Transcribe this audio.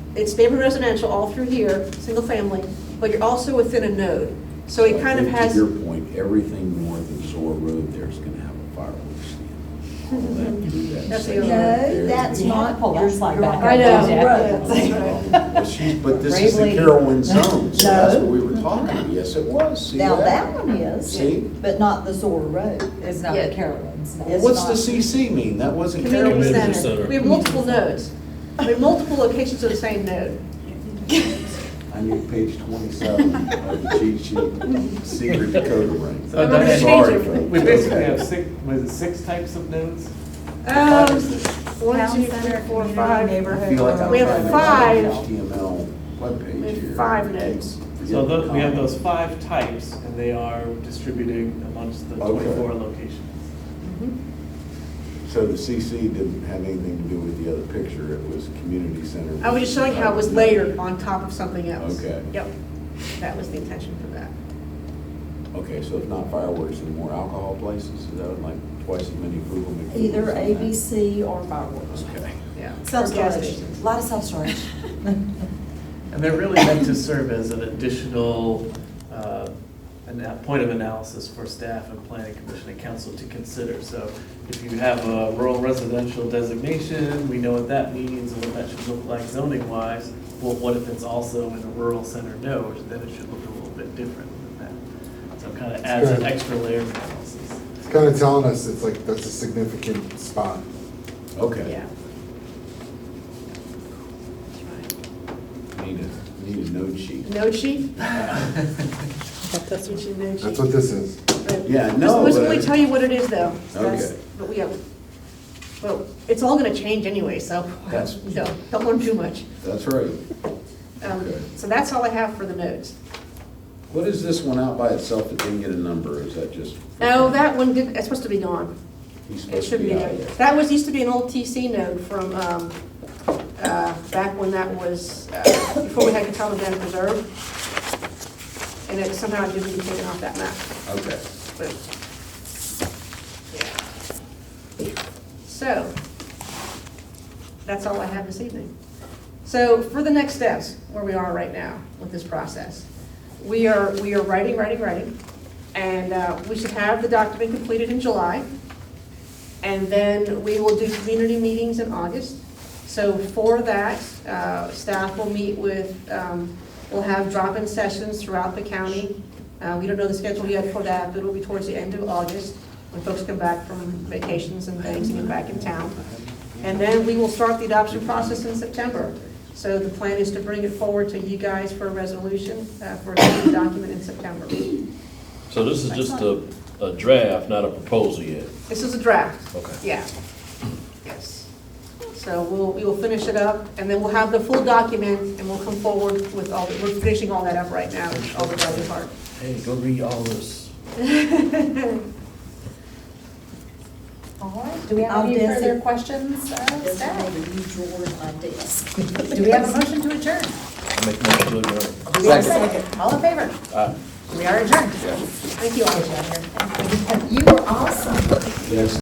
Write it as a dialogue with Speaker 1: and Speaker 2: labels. Speaker 1: it's neighborhood residential all through here, single family, but you're also within a node. So it kind of
Speaker 2: I think
Speaker 1: has,
Speaker 2: To your point, everything north of Zor Road there is going to have a fireworks stand. All that- through that
Speaker 1: That's the
Speaker 2: section
Speaker 1: other-
Speaker 2: there
Speaker 3: No,
Speaker 2: is
Speaker 3: that's
Speaker 2: gonna-
Speaker 3: not.
Speaker 4: Pull that
Speaker 3: you're-
Speaker 4: slide
Speaker 3: you're
Speaker 4: back
Speaker 3: right
Speaker 5: up.
Speaker 3: down the
Speaker 5: I know.
Speaker 3: road.
Speaker 5: That's
Speaker 2: But she's, but this is the
Speaker 4: Bravely.
Speaker 2: Carolyn zone, so that's what we were
Speaker 3: No.
Speaker 2: talking about. Yes, it was. See
Speaker 3: Now, that one is,
Speaker 2: See?
Speaker 3: but not the Zor Road.
Speaker 4: It's not
Speaker 1: Yeah.
Speaker 4: the Carolins, no.
Speaker 2: Well,
Speaker 3: It's
Speaker 2: what's the
Speaker 3: not-
Speaker 2: CC mean? That wasn't
Speaker 1: community
Speaker 2: Carolyn.
Speaker 6: Community
Speaker 1: center.
Speaker 6: center.
Speaker 1: We have multiple nodes. We have multiple locations of the same node.
Speaker 2: I need page twenty-seven of the cheat sheet, secret Dakota rings.
Speaker 1: I'm
Speaker 7: So
Speaker 1: gonna
Speaker 7: that-
Speaker 1: change it.
Speaker 2: Sorry, folks.
Speaker 7: We basically have six, was it six types of nodes?
Speaker 1: Um, one,
Speaker 5: Town
Speaker 1: two,
Speaker 5: center,
Speaker 1: three, four,
Speaker 5: community,
Speaker 1: five.
Speaker 5: neighborhood.
Speaker 2: I feel like I'm
Speaker 1: We have
Speaker 2: trying to
Speaker 1: five-
Speaker 2: make an HTML webpage
Speaker 1: we have
Speaker 2: here.
Speaker 1: five nodes.
Speaker 7: So tho- we have those five types, and they are distributing amongst the
Speaker 2: Okay.
Speaker 7: twenty-four locations.
Speaker 2: So the CC didn't have anything to do with the other picture, it was community center.
Speaker 1: I was just showing how it was layered on top of something else.
Speaker 2: Okay.
Speaker 1: Yep, that was the intention for that.
Speaker 2: Okay, so if not fireworks, then more alcohol places, is that like twice as many Google McDougal's?
Speaker 3: Either
Speaker 2: in that?
Speaker 3: ABC or fireworks.
Speaker 2: Okay.
Speaker 1: Yeah. Or gas
Speaker 3: Self-storage,
Speaker 1: stations.
Speaker 3: a lot of self-storage.
Speaker 7: And they're really meant to serve as an additional, uh, an- point of analysis for staff and planning commission and council to consider. So if you have a rural residential designation, we know what that means and what that should look like zoning wise. Well, what if it's also in a rural center node, then it should look a little bit different than that. So it kind of adds an
Speaker 8: Sure.
Speaker 7: extra layer of analysis.
Speaker 8: It's kind of telling us it's like, that's a significant spot.
Speaker 2: Okay.
Speaker 1: Yeah.
Speaker 2: Need a, need a node sheet.
Speaker 1: Node sheet? That's what you node sheet.
Speaker 8: That's what this is.
Speaker 1: But
Speaker 2: Yeah,
Speaker 1: this-
Speaker 2: no,
Speaker 1: This
Speaker 2: but-
Speaker 1: will tell you what it is, though. That's-
Speaker 2: Okay.
Speaker 1: But we have, well, it's all gonna change anyway, so,
Speaker 2: That's-
Speaker 1: no, don't learn too much.
Speaker 2: That's right.
Speaker 1: Um,
Speaker 2: Okay.
Speaker 1: So that's all I have for the nodes.
Speaker 2: What is this one out by itself that didn't get a number, is that just?
Speaker 1: Oh, that one did, it's supposed to be gone.
Speaker 2: He's
Speaker 1: It
Speaker 2: supposed to
Speaker 1: shouldn't
Speaker 2: be
Speaker 1: be
Speaker 2: out
Speaker 1: there.
Speaker 2: of there.
Speaker 1: That was, used to be an old TC node from, um, uh, back when that was, uh, before we had Catawba Dam Preserve. And it somehow didn't get taken off that map,
Speaker 2: Okay.
Speaker 1: but, yeah. So, that's all I have this evening. So for the next steps, where we are right now with this process, we are, we are writing, writing, writing, and uh, we should have the document completed in July. And then we will do community meetings in August. So for that, uh, staff will meet with, um, we'll have drop-in sessions throughout the county. Uh, We don't know the schedule yet for that, but it'll be towards the end of August, when folks come back from vacations and things and get back in town. And then we will start the adoption process in September. So the plan is to bring it forward to you guys for a resolution, uh, for a document in September.
Speaker 6: So this is just a, a draft, not a proposal yet.
Speaker 1: This is a draft.
Speaker 6: Okay.
Speaker 1: Yeah. Yes. So we'll, we will finish it up, and then we'll have the full document, and we'll come forward with all, the- we're finishing all that up right now, all the other part.
Speaker 6: Hey, go read all this.
Speaker 4: All right, do we
Speaker 3: I'll
Speaker 4: have any
Speaker 3: dance
Speaker 4: further
Speaker 3: it.
Speaker 4: questions of
Speaker 3: There's
Speaker 4: staff?
Speaker 3: another new drawer in my desk.
Speaker 4: Do we have a motion to adjourn?
Speaker 6: I make my good.
Speaker 4: Do we have a second? All in favor?
Speaker 6: Aye.
Speaker 4: We are adjourned.
Speaker 1: Thank you all.
Speaker 3: You were awesome.
Speaker 2: Yes,